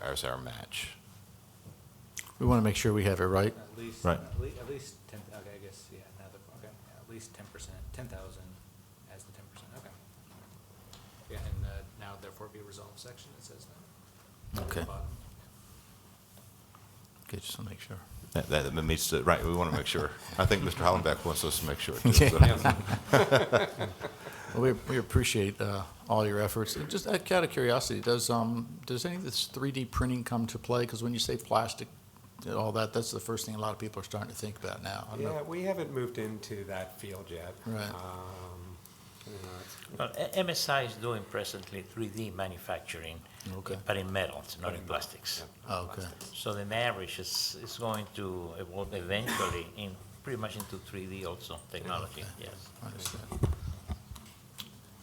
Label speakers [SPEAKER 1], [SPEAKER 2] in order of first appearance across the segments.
[SPEAKER 1] as our match.
[SPEAKER 2] We want to make sure we have it right.
[SPEAKER 3] At least,
[SPEAKER 4] Right.
[SPEAKER 3] at least, at least ten, okay, I guess, yeah, now that, okay, yeah, at least ten percent, ten thousand as the ten percent, okay. Yeah, and, uh, now therefore be resolved section, it says that.
[SPEAKER 2] Okay.
[SPEAKER 3] Bottom.
[SPEAKER 2] Okay, just to make sure.
[SPEAKER 1] That, that meets the, right, we want to make sure. I think Mr. Hollenbeck wants us to make sure. too, so.
[SPEAKER 5] uh,
[SPEAKER 2] Well, we, we appreciate uh, all your efforts. Just out out of curiosity, does, um, does any of this 3D printing come to play? Because when you say plastic and all that, that's the first thing a lot of people are starting to think about now. I don't know.
[SPEAKER 6] Yeah, we haven't moved into that field yet.
[SPEAKER 2] Right.
[SPEAKER 6] Um, you know, it's-
[SPEAKER 7] Well, a- MSI is doing presently 3D manufacturing,
[SPEAKER 2] Okay.
[SPEAKER 7] but in metals, not in plastics.
[SPEAKER 2] Oh, Okay,
[SPEAKER 7] So the marriage is, is going to evolve eventually in, pretty much into 3D also, technology, yes.
[SPEAKER 2] I understand.
[SPEAKER 8] Scott,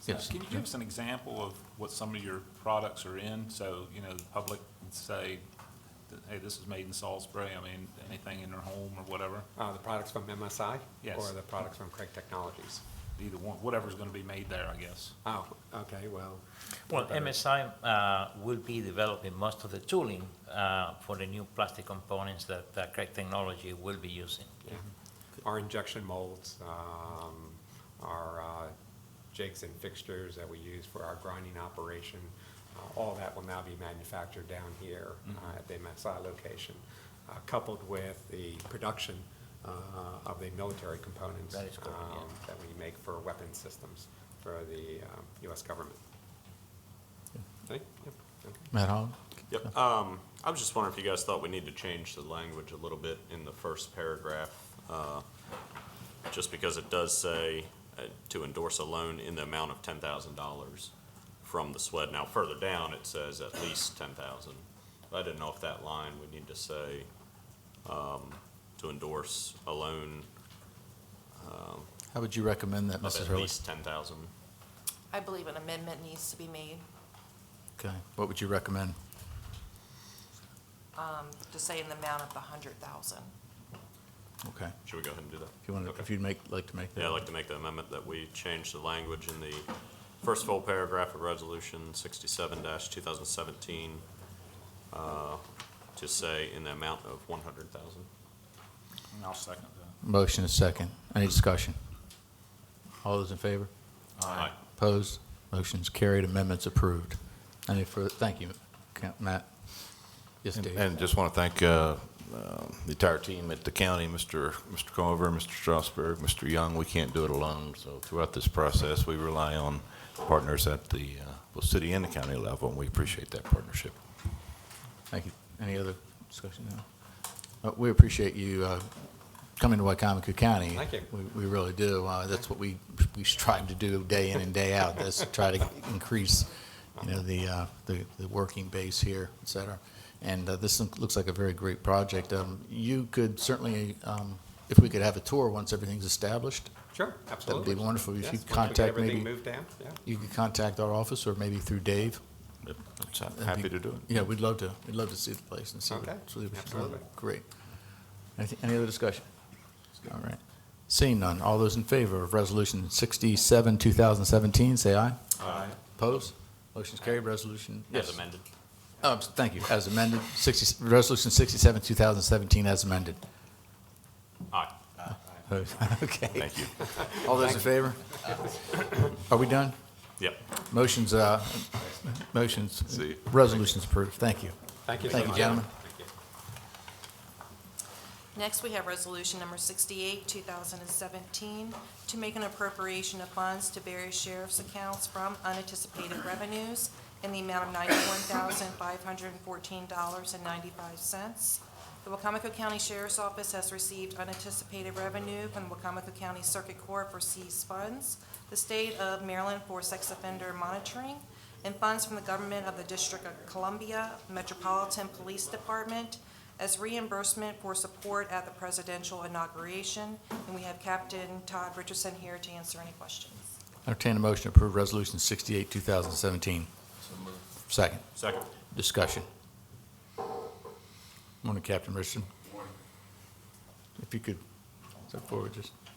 [SPEAKER 2] Yes,
[SPEAKER 8] Uh, Can you give us an example of what some of your products are in? So, you know, the public can say, that, hey, this is made in Salisbury, I mean, anything in their home or whatever,
[SPEAKER 6] Uh, the products from MSI?
[SPEAKER 8] Yes.
[SPEAKER 6] Or the products from Craig Technologies?
[SPEAKER 8] either one, whatever's gonna be made there, I guess.
[SPEAKER 6] Oh, okay, well,
[SPEAKER 7] Well, MSI uh, will be developing most of the tooling uh, for the new plastic components that uh, Craig Technology will be using.
[SPEAKER 6] yeah. Our injection molds, um, our uh, jigs and fixtures that we use for our grinding operation, uh, all that will now be manufactured down here uh,
[SPEAKER 2] Mm-hmm.
[SPEAKER 6] at the MSI location, uh, coupled with the production uh, of the military components
[SPEAKER 7] That is correct, yeah.
[SPEAKER 6] um, that we make for weapon systems for the um, US government. Okay? Yep. Okay.
[SPEAKER 2] Matt Holland?
[SPEAKER 5] Yep. Um, I was just wondering if you guys thought we need to change the language a little bit in the first paragraph, uh, just because it does say uh, to endorse a loan in the amount of ten thousand dollars from the SWED. Now, further down, it says at least ten thousand. I didn't know if that line, we need to say, um, to endorse a loan
[SPEAKER 2] How would you recommend that,
[SPEAKER 5] of
[SPEAKER 2] Mrs.
[SPEAKER 5] at
[SPEAKER 2] Hurley?
[SPEAKER 5] least ten thousand.
[SPEAKER 9] I believe an amendment needs to be made
[SPEAKER 2] Okay, what would you recommend?
[SPEAKER 9] to say in the amount of the hundred thousand.
[SPEAKER 2] Okay,
[SPEAKER 5] Should we go ahead and do that?
[SPEAKER 2] if you want, to,
[SPEAKER 5] Okay.
[SPEAKER 2] if you'd make, like to make that.
[SPEAKER 5] Yeah, I'd like to make the amendment that we change the language in the first full paragraph of Resolution sixty-seven two thousand seventeen uh, to say in the amount of one hundred thousand.
[SPEAKER 8] And I'll second that.
[SPEAKER 2] Motion is second. Any discussion? All those in favor?
[SPEAKER 5] Aye.
[SPEAKER 2] Opposed? Motion's carried. Amendments approved. Any further, thank you, Ca- Matt. Yes,
[SPEAKER 1] And-
[SPEAKER 2] Dave.
[SPEAKER 1] And just want to thank uh, uh, the entire team at the county, Mr. Mr. Conover, Mr. Strasburg, Mr. Young. We can't do it alone, so throughout this process, we rely on partners at the uh, both city and the county level, and we appreciate that partnership.
[SPEAKER 2] Thank you. Any other discussion now? Uh, We appreciate you uh, coming to Wycomico County.
[SPEAKER 6] Thank you.
[SPEAKER 2] We- We really do. Uh, That's what we, we strive to do day in and day out, That's to try to increase, you know, the, uh, the the working base here, et cetera. And uh, this look- looks like a very great project. Um, You could certainly, um, if we could have a tour once everything's established,
[SPEAKER 6] Sure, absolutely.
[SPEAKER 2] wonderful if you
[SPEAKER 6] Yes, once we get
[SPEAKER 2] contact
[SPEAKER 6] Everything
[SPEAKER 2] maybe-
[SPEAKER 6] moved down, yeah.
[SPEAKER 2] you could contact our office or maybe through Dave.
[SPEAKER 1] Yep, so I'm Happy to do it.
[SPEAKER 2] Yeah, we'd love to, we'd love to see the place and see. what-
[SPEAKER 6] Okay,
[SPEAKER 2] see what-
[SPEAKER 6] absolutely.
[SPEAKER 2] Great. Anything- Any other discussion? All right. Seeing none, all those in favor of Resolution 67, 2017, say aye. Aye. Opposed? Motion's carried, resolution.
[SPEAKER 5] As
[SPEAKER 2] yes.
[SPEAKER 5] amended.
[SPEAKER 2] Oh, I'm s- thank you, as amended, 60, Resolution 67, 2017, as amended.
[SPEAKER 5] Aye.
[SPEAKER 2] Okay.
[SPEAKER 5] Thank you.
[SPEAKER 2] All those in favor? Are we done?
[SPEAKER 5] Yep.
[SPEAKER 2] Motion's, uh, motion's,
[SPEAKER 5] See.
[SPEAKER 2] resolution's approved, thank you.
[SPEAKER 6] Thank you so
[SPEAKER 2] Thank you,
[SPEAKER 6] much.
[SPEAKER 2] gentlemen.
[SPEAKER 6] Thank you.
[SPEAKER 9] Next, we have resolution number sixty-eight, two thousand and seventeen, to make an appropriation of funds to various sheriff's accounts from unanticipated revenues in the amount of ninety-one thousand, five hundred and fourteen dollars and ninety-five cents. The Wacomico County Sheriff's Office has received unanticipated revenue from the Wacomico County Circuit Court for seized funds, the state of Maryland for sex offender monitoring, and funds from the government of the District of Columbia Metropolitan Police Department as reimbursement for support at the presidential inauguration. And we have Captain Todd Richardson here to answer any questions.
[SPEAKER 2] Entertain a motion to approve Resolution 68, 2017. Second.
[SPEAKER 5] Second.
[SPEAKER 2] Discussion. Morning, Captain Richardson. Morning. If you could step forward, just,